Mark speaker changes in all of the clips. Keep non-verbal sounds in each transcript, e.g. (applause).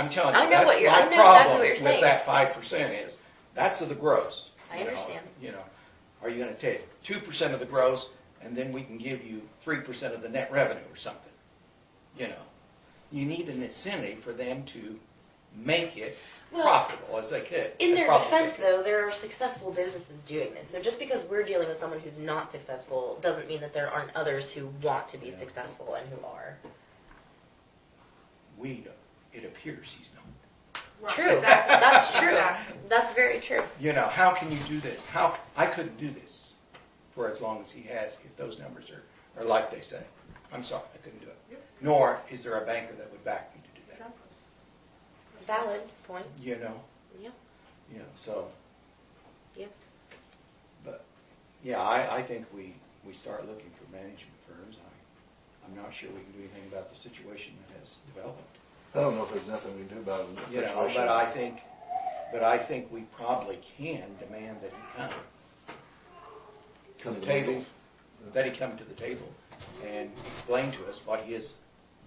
Speaker 1: I'm telling
Speaker 2: I
Speaker 1: you,
Speaker 2: know what
Speaker 1: that's
Speaker 2: you're- I
Speaker 1: my
Speaker 2: know exactly
Speaker 1: problem
Speaker 2: what you're
Speaker 1: with
Speaker 2: saying.
Speaker 1: that five percent is, that's the gross.
Speaker 2: I
Speaker 1: you know,
Speaker 2: understand.
Speaker 1: You know, are you gonna take two percent of the gross and then we can give you three percent of the net revenue or something? You know, you need an incentive for them to make it
Speaker 2: Well,
Speaker 1: profitable as they could.
Speaker 2: In
Speaker 1: as
Speaker 2: their
Speaker 1: profitable as
Speaker 2: defense,
Speaker 1: they could.
Speaker 2: though, there are successful businesses doing this. So just because we're dealing with someone who's not successful doesn't mean that there aren't others who want to be
Speaker 1: Yeah.
Speaker 2: successful and who are.
Speaker 1: We, don't. it appears he's not.
Speaker 3: Right,
Speaker 2: True.
Speaker 3: exactly.
Speaker 2: That's true.
Speaker 3: Exactly.
Speaker 2: That's very true.
Speaker 1: You know, how can you do that? How, I couldn't do this for as long as he has if those numbers are, are like they say. I'm sorry, I couldn't do it.
Speaker 3: Yep.
Speaker 1: Nor is there a banker that would back me to do that,
Speaker 3: Exactly.
Speaker 2: Valid point.
Speaker 1: you know?
Speaker 2: Yeah.
Speaker 1: You know, so,
Speaker 2: Yes.
Speaker 1: but, yeah, I, I think we, we start looking for management firms. I, I'm not sure we can do anything about the situation that has developed.
Speaker 4: I don't know if there's nothing we can do about it. in that
Speaker 1: You know,
Speaker 4: situation.
Speaker 1: but I think, but I think we probably can demand that he come to
Speaker 4: Come
Speaker 1: the
Speaker 4: to the
Speaker 1: table,
Speaker 4: meetings.
Speaker 1: that he come to the table and explain to us what his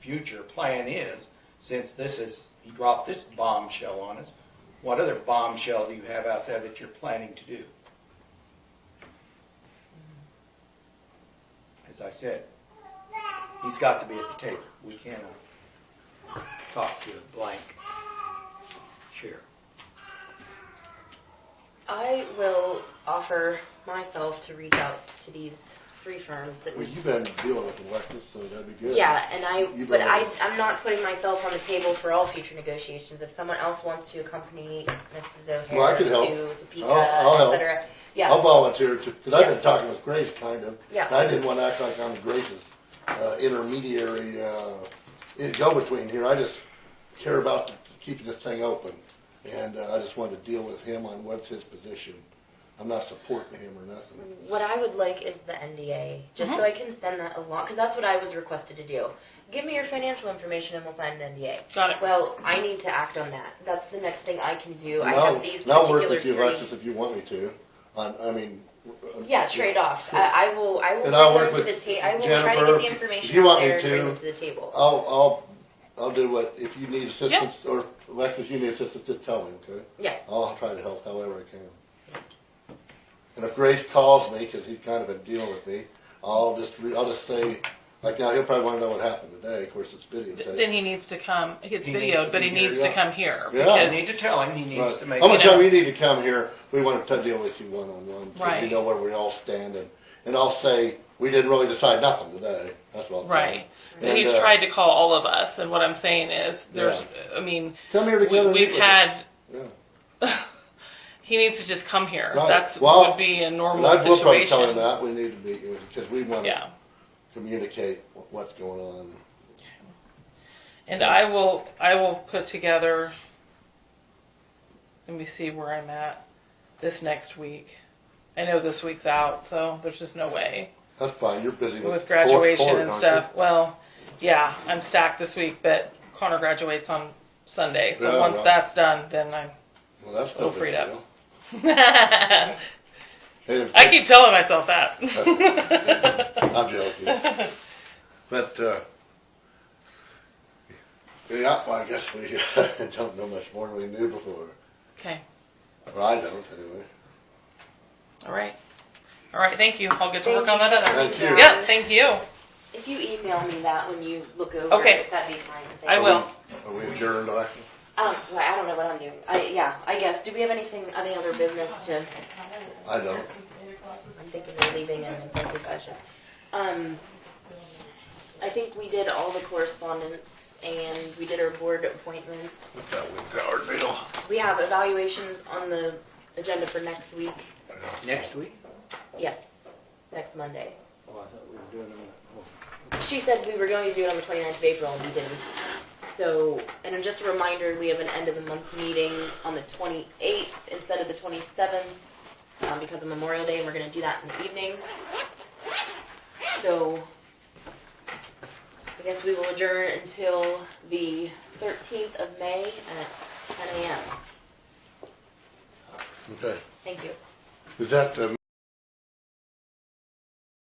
Speaker 1: future plan is, since this is, he dropped this bombshell on us. What other bombshell do you have out there that you're planning to do? As I said, he's got to be at the table. We cannot talk to a blank chair.
Speaker 2: I will offer myself to reach out to these three firms that
Speaker 4: Well,
Speaker 2: we.
Speaker 4: you've been dealing with Alexis, so that'd be good.
Speaker 2: Yeah, and I,
Speaker 4: You've
Speaker 2: but
Speaker 4: been-
Speaker 2: I, I'm not putting myself on the table for all future negotiations. If someone else wants to accompany Mrs. O'Hare
Speaker 4: Well, I could help.
Speaker 2: to Topeka,
Speaker 4: I'll- I'll
Speaker 2: et
Speaker 4: help.
Speaker 2: cetera. Yeah.
Speaker 4: I'll volunteer to, because I've
Speaker 2: Yeah.
Speaker 4: been talking with Grace, kind of.
Speaker 2: Yeah.
Speaker 4: And I didn't want to act like I'm Grace's uh, intermediary, uh, in- go-between here. I just care about keeping this thing open. And uh, I just wanted to deal with him on what's his position. I'm not supporting him or nothing.
Speaker 2: What I would like is the NDA, just
Speaker 5: Uh-huh.
Speaker 2: so I can send that along, because that's what I was requested to do. Give me your financial information and we'll sign an NDA.
Speaker 5: Got it.
Speaker 2: Well, I need to act on that. That's the next thing I can do. I
Speaker 4: I'll-
Speaker 2: have these
Speaker 4: I'll work
Speaker 2: particular
Speaker 4: with you, Alexis,
Speaker 2: three.
Speaker 4: if you want me to. On, I mean. uh,
Speaker 2: Yeah, trade off. I, I will. I will
Speaker 4: And I'll
Speaker 2: bring
Speaker 4: work
Speaker 2: them to the
Speaker 4: with
Speaker 2: ta- I will try to get
Speaker 4: Jennifer,
Speaker 2: the
Speaker 4: if- if
Speaker 2: information
Speaker 4: you
Speaker 2: out
Speaker 4: want me
Speaker 2: there and bring
Speaker 4: to,
Speaker 2: them to the table.
Speaker 4: I'll, I'll, I'll do what, if you need assistance, or if Alexis, you need assistance, just tell me, okay?
Speaker 2: Yeah.
Speaker 4: I'll try to help however I can. And if Grace calls me, because he's kind of been dealing with me, I'll just, re- I'll just say, like now, he'll probably want to know what happened today, of course, it's videotaped.
Speaker 5: Then he needs to come, he gets
Speaker 1: He needs to
Speaker 5: videoed, but
Speaker 1: be
Speaker 5: he
Speaker 1: here,
Speaker 5: needs
Speaker 4: yeah.
Speaker 5: to come here.
Speaker 4: Yeah.
Speaker 1: I
Speaker 4: I
Speaker 5: Because
Speaker 1: need to tell him he needs to
Speaker 4: But I'm
Speaker 1: make.
Speaker 4: gonna
Speaker 5: it
Speaker 4: tell
Speaker 5: up.
Speaker 4: him you need to come here, we want to deal with you one-on-one, so you
Speaker 5: Right.
Speaker 4: know where we all stand, and, and I'll say, we didn't really decide nothing today, that's what I'll tell him.
Speaker 5: Right. But he's
Speaker 4: And, uh,
Speaker 5: tried to call all of us, and what I'm saying is, there's, I mean,
Speaker 4: Come here
Speaker 5: we,
Speaker 4: together. and
Speaker 5: we've
Speaker 4: meet with us.
Speaker 5: had,
Speaker 4: Yeah.
Speaker 5: he needs to just come here.
Speaker 4: Right.
Speaker 5: That's,
Speaker 4: Well,
Speaker 5: would be a
Speaker 4: And
Speaker 5: normal
Speaker 4: I will probably tell him
Speaker 5: situation.
Speaker 4: that, we need to meet you, because we want
Speaker 5: Yeah.
Speaker 4: to communicate wh- what's going on.
Speaker 5: And I will, I will put together, let me see where I'm at this next week. I know this week's out, so there's just no way.
Speaker 4: That's fine, you're busy with.
Speaker 5: with
Speaker 4: court-
Speaker 5: graduation
Speaker 4: court,
Speaker 5: and
Speaker 4: aren't you?
Speaker 5: stuff. Well, yeah, I'm stacked this week, but Connor graduates on Sunday, so
Speaker 4: Yeah,
Speaker 5: once
Speaker 4: right.
Speaker 5: that's done, then I'm. (laughs)
Speaker 4: Well, that's
Speaker 5: Feel
Speaker 4: no
Speaker 5: free
Speaker 4: big
Speaker 5: to-
Speaker 4: deal.
Speaker 5: I
Speaker 4: Hey, (laughs)
Speaker 5: keep telling myself that. (laughs)
Speaker 4: I'm joking. But, uh, yeah, well, I guess we (laughs) don't know much more than we knew before,
Speaker 5: okay.
Speaker 4: or I don't, anyway.
Speaker 5: All right. All right. Thank you. I'll get to
Speaker 2: Thank
Speaker 5: work on
Speaker 2: you
Speaker 5: that
Speaker 2: for
Speaker 5: other.
Speaker 4: Thank
Speaker 2: coming
Speaker 4: you.
Speaker 2: down.
Speaker 5: Yep. Thank you.
Speaker 2: If you email me that when you look over
Speaker 5: Okay.
Speaker 2: it, that'd be fine. Thank
Speaker 5: I
Speaker 2: you.
Speaker 5: will.
Speaker 4: Are we adjourned, Alexis?
Speaker 2: Um, well, I don't know what I'm doing. I, yeah, I guess. Do we have anything, any other business to?
Speaker 4: I don't.
Speaker 2: I'm thinking of leaving an executive session. Um, I think we did all the correspondence and we did our board appointments.
Speaker 4: What's that with Howard Beal?
Speaker 2: We have evaluations on the agenda for next week.
Speaker 1: Next week?
Speaker 2: Yes, next Monday.
Speaker 1: Oh, I thought we were doing them. oh.
Speaker 2: She said we were going to do it on the 29th of April, and we didn't. So, and just a reminder, we have an end of the month meeting on the 28th instead of the 27th um, because of Memorial Day, and we're going to do that in the evening. So, I guess we will adjourn until the 13th of May at 10 a.m.
Speaker 4: Okay,
Speaker 2: Thank you.
Speaker 4: is that uh, the